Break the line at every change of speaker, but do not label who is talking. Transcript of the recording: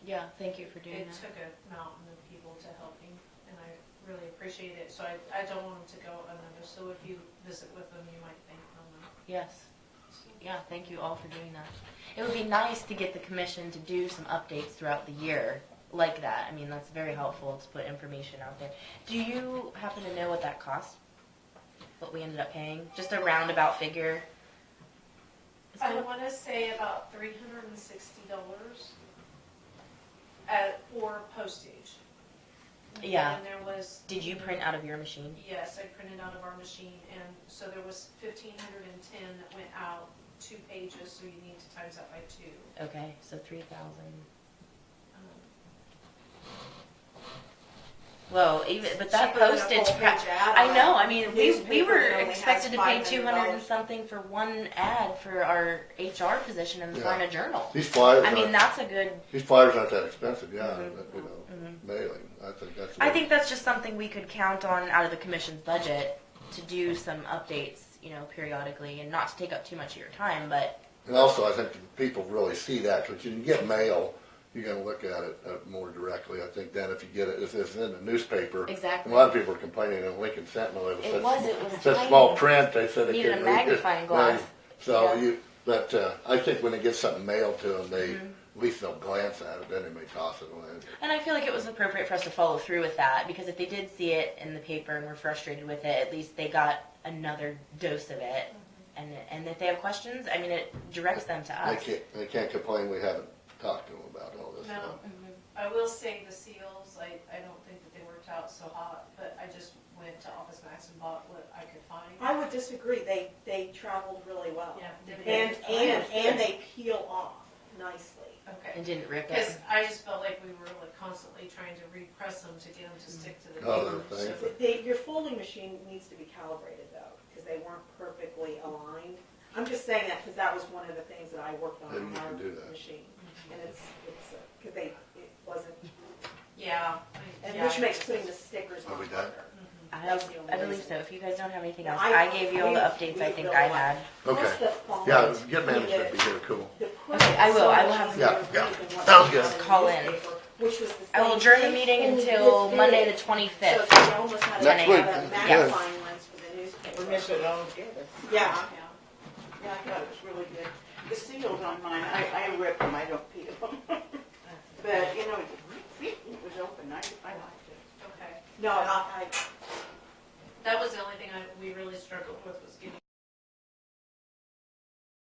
Yeah, thank you for doing
It
that.
took a mountain of people to help me, and I really appreciate it, so I, I don't want them to go unnoticed, so if you visit with them, you might "Oh, thank them.
Yes. Yeah, thank you all for doing that. It would be nice to get the commission to do some updates throughout the year like that. I mean, that's very helpful to put information out there. Do you happen to know what that cost? What we ended up paying? Just a roundabout figure? It's
I
kinda-
wanna say about three hundred and sixty dollars at, for postage.
Yeah.
And there was.
Did you print out of your machine?
Yes, I printed out of our machine, and so there was fifteen hundred and ten that went out, two pages, so you need to times that by two.
Okay, so three thousand.
Um,
Whoa, even but that
cheaper than a
postage.
full
pri-
page ad
I
on
know.
a
I mean, we we
newspaper
were
that only has
expected to pay
$500.
two hundred and something for one ad for our HR position in the
Yeah.
Florida Journal.
These flyers,
I mean,
aren't,
that's a good.
these flyers aren't that expensive, yeah,
Mhm.
but, you know,
mhm.
mailing, I think that's.
I
what-
think that's just something we could count on out of the commission's budget to do some updates, you know, periodically, and not to take up too much of your time. But
And also, I think that people really see that, because you can get mail, you're gonna look at it uh, more directly, I think, than if you get it, if it's in the newspaper.
Exactly.
A lot of people are complaining in Lincoln Sentinel, it was
It
such.
was- it was
Such
tiny.
small print, they said they
Needed a
couldn't read it.
magnifying glass.
Right. So
Yeah.
you, but, uh, I think when they get something mailed to them, they,
Mm-hmm.
at least they'll glance at it, then they may toss it away.
and I feel like it was appropriate for us to follow through with that because if they did see it in the paper and were frustrated with it, at least they got another dose of it.
Mm-hmm.
And, and if they have questions, I mean, it directs them to
They
us.
can't, they can't complain, we haven't talked to them about all this
No.
stuff.
Mm-hmm.
I will say the seals, I, I don't think that they worked out so hot, but I just went to Office Max and bought what I could find.
I would disagree. They, they traveled really well.
Yeah, did they?
And, and, and they peel off nicely.
Okay,
And didn't rip
because
it.
I just felt like we were like constantly trying to repress them to get them to stick to the
Oh, they're
paper.
things
so-
that-
They, your folding machine needs to be calibrated though, because they weren't perfectly aligned. I'm just saying that because that was one of the things that I worked on
Maybe
in
we
our
can do that.
machine. And it's, it's, because they, it wasn't,
Yeah. I-
and
yeah,
which
I
makes
just-
putting the stickers
Are
on
we
harder.
done?
I, I believe so. If you guys don't have anything else,
I-
I gave you all the updates I think I had.
Plus
Okay,
the font,
yeah,
the-
get management, be here, cool.
The print
Okay, I
is
will.
so
I will
much
have-
easier
Yeah,
to
yeah.
read than what
Sounds
was
good.
on the
Call in.
newspaper, Which was the
I will
same
adjourn the
thing,
meeting
only
until
this
Monday the
big. So
25th.
they almost had
Next
a-
week,
had a
yeah.
magnifying lens for the newspaper.
We missed it all together.
Yeah,
Yeah.
yeah, I thought it was really good.
The seals on mine, I,